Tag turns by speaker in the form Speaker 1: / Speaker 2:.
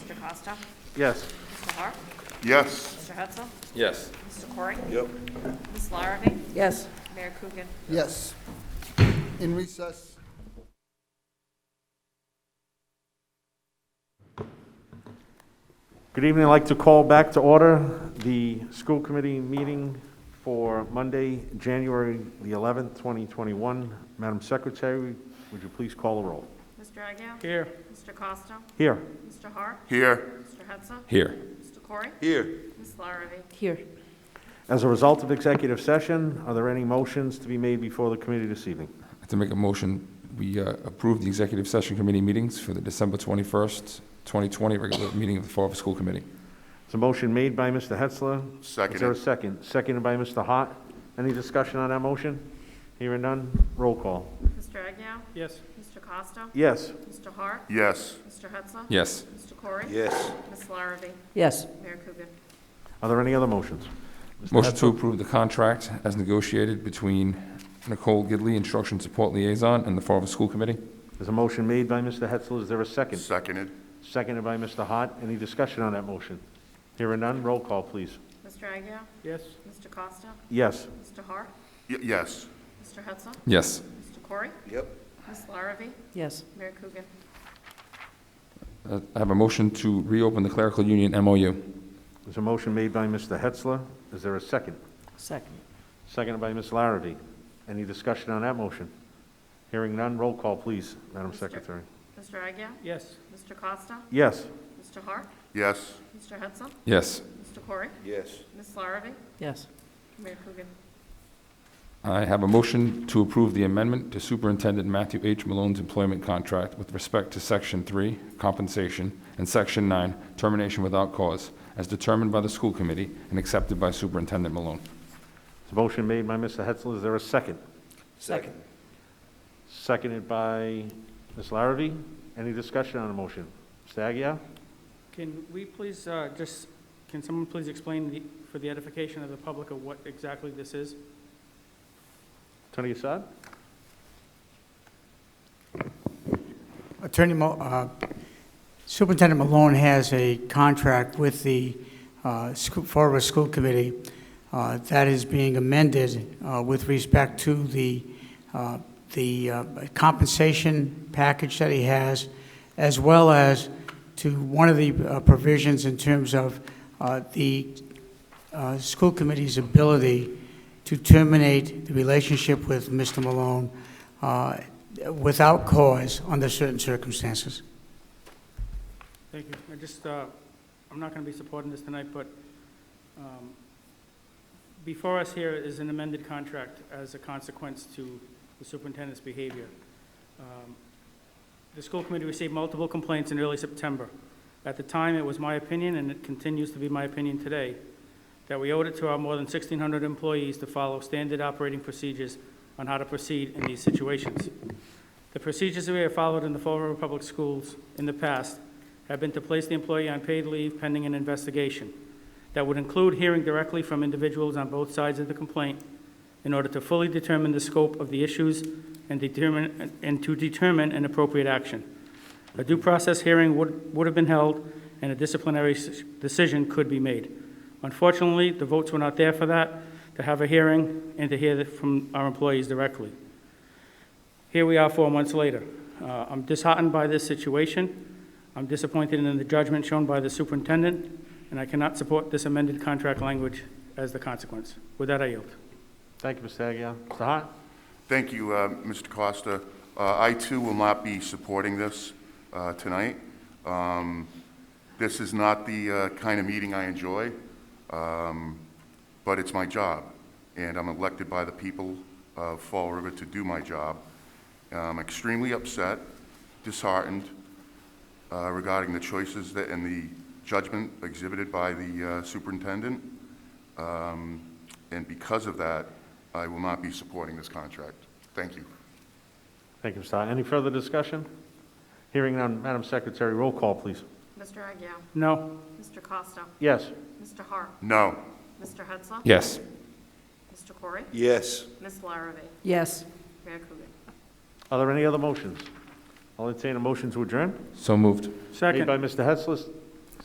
Speaker 1: Costa?
Speaker 2: Yes.
Speaker 1: Mr. Har?
Speaker 3: Yes.
Speaker 1: Mr. Hudson?
Speaker 4: Yes.
Speaker 1: Mr. Corey?
Speaker 3: Yep.
Speaker 1: Ms. Larrabee?
Speaker 5: Yes.
Speaker 1: Mayor Coogan?
Speaker 6: Yes. In recess.
Speaker 2: Good evening. I'd like to call back to order the school committee meeting for Monday, January the 11th, 2021. Madam Secretary, would you please call the roll?
Speaker 1: Mr. Agia?
Speaker 2: Here.
Speaker 1: Mr. Costa?
Speaker 2: Here.
Speaker 1: Mr. Har?
Speaker 3: Here.
Speaker 1: Mr. Hudson?
Speaker 4: Here.
Speaker 1: Mr. Corey?
Speaker 3: Here.
Speaker 1: Ms. Larrabee?
Speaker 5: Here.
Speaker 2: As a result of executive session, are there any motions to be made before the committee this evening?
Speaker 4: I'd like to make a motion, we uh, approve the executive session committee meetings for the December 21st, 2020 regular meeting of the Fall River School Committee.
Speaker 2: It's a motion made by Mr. Hetzler. Is there a
Speaker 3: Seconded.
Speaker 2: second? Seconded by Mr. Hart. Any discussion on that motion? Hearing none, roll call.
Speaker 1: Mr. Agia? Yes. Mr. Costa?
Speaker 2: Yes.
Speaker 1: Mr. Har?
Speaker 3: Yes.
Speaker 1: Mr. Hudson?
Speaker 4: Yes.
Speaker 1: Mr. Corey?
Speaker 3: Yes.
Speaker 1: Ms. Larrabee?
Speaker 5: Yes.
Speaker 1: Mayor Coogan?
Speaker 2: Are there any other motions?
Speaker 4: Motion to approve the contract as negotiated between Nicole Gidley, Instruction Support Liaison, and the Fall River School Committee.
Speaker 2: There's a motion made by Mr. Hetzler. Is there a second?
Speaker 3: Seconded.
Speaker 2: Seconded by Mr. Hart. Any discussion on that motion? Hearing none, roll call, please.
Speaker 1: Mr. Agia?
Speaker 2: Yes.
Speaker 1: Mr. Costa?
Speaker 2: Yes.
Speaker 1: Mr. Har?
Speaker 3: Y- Yes.
Speaker 1: Mr. Hudson?
Speaker 4: Yes.
Speaker 1: Mr. Corey?
Speaker 3: Yep.
Speaker 1: Ms. Larrabee?
Speaker 5: Yes.
Speaker 1: Mayor Coogan?
Speaker 4: Uh, I have a motion to reopen the clerical union MOU.
Speaker 2: There's a motion made by Mr. Hetzler. Is there a second?
Speaker 5: Second.
Speaker 2: Seconded by Ms. Larrabee. Any discussion on that motion? Hearing none, roll call, please, Madam Secretary.
Speaker 1: Mr. Agia?
Speaker 2: Yes.
Speaker 1: Mr. Costa?
Speaker 2: Yes.
Speaker 1: Mr. Har?
Speaker 3: Yes.
Speaker 1: Mr. Hudson?
Speaker 4: Yes.
Speaker 1: Mr. Corey?
Speaker 3: Yes.
Speaker 1: Ms. Larrabee?
Speaker 5: Yes.
Speaker 1: Mayor Coogan?
Speaker 4: I have a motion to approve the amendment to Superintendent Matthew H. Malone's employment contract with respect to Section 3, compensation, and Section 9, termination without cause, as determined by the school committee and accepted by Superintendent Malone.
Speaker 2: There's a motion made by Mr. Hetzler. Is there a second?
Speaker 5: Second.
Speaker 2: Seconded by Ms. Larrabee. Any discussion on the motion? Mr. Aguirre?
Speaker 7: Can we please, uh, just, can someone please explain the- for the edification of the public of what exactly this is?
Speaker 2: Attorney Assad?
Speaker 8: Attorney, Mo- uh, Superintendent Malone has a contract with the uh, Scho- Fall River School Committee uh, that is being amended uh, with respect to the, uh, the uh, compensation package that he has, as well as to one of the uh, provisions in terms of uh, the uh, school committee's ability to terminate the relationship with Mr. Malone uh, without cause under certain circumstances.
Speaker 7: Thank you. I just, uh, I'm not going to be supporting this tonight, but um, before us here is an amended contract as a consequence to the superintendent's behavior. Um, The school committee received multiple complaints in early September. At the time, it was my opinion, and it continues to be my opinion today, that we owed it to our more than 1,600 employees to follow standard operating procedures on how to proceed in these situations. The procedures that we have followed in the Fall River Public Schools in the past have been to place the employee on paid leave pending an investigation. That would include hearing directly from individuals on both sides of the complaint in order to fully determine the scope of the issues and determine, and to determine an appropriate action. A due process hearing would, would have been held, and a disciplinary s- decision could be made. Unfortunately, the votes were not there for that, to have a hearing and to hear the- from our employees directly. Here we are four months later. Uh, I'm disheartened by this situation. I'm disappointed in the judgment shown by the superintendent, and I cannot support this amended contract language as the consequence. With that, I yield.
Speaker 2: Thank you, Mr. Aguirre. Mr. Hart?
Speaker 3: Thank you, uh, Mr. Costa. Uh, I too will not be supporting this uh, tonight. Um, This is not the uh, kind of meeting I enjoy, um, but it's my job, and I'm elected by the people of Fall River to do my job. I'm extremely upset, disheartened uh, regarding the choices that- and the judgment exhibited by the uh, superintendent. Um, And because of that, I will not be supporting this contract. Thank you.
Speaker 2: Thank you, Mr. Hart. Any further discussion? Hearing none, Madam Secretary, roll call, please.
Speaker 1: Mr. Agia?
Speaker 7: No?
Speaker 1: Mr. Costa?
Speaker 2: Yes.
Speaker 1: Mr. Har?
Speaker 3: No.
Speaker 1: Mr. Hudson?
Speaker 4: Yes.
Speaker 1: Mr. Corey?
Speaker 3: Yes.
Speaker 1: Ms. Larrabee?
Speaker 5: Yes.
Speaker 1: Mayor Coogan?
Speaker 2: Are there any other motions? I'll entertain a motion to adjourn.
Speaker 4: So moved.
Speaker 2: Made by
Speaker 7: Second.
Speaker 2: Mr. Hetzler,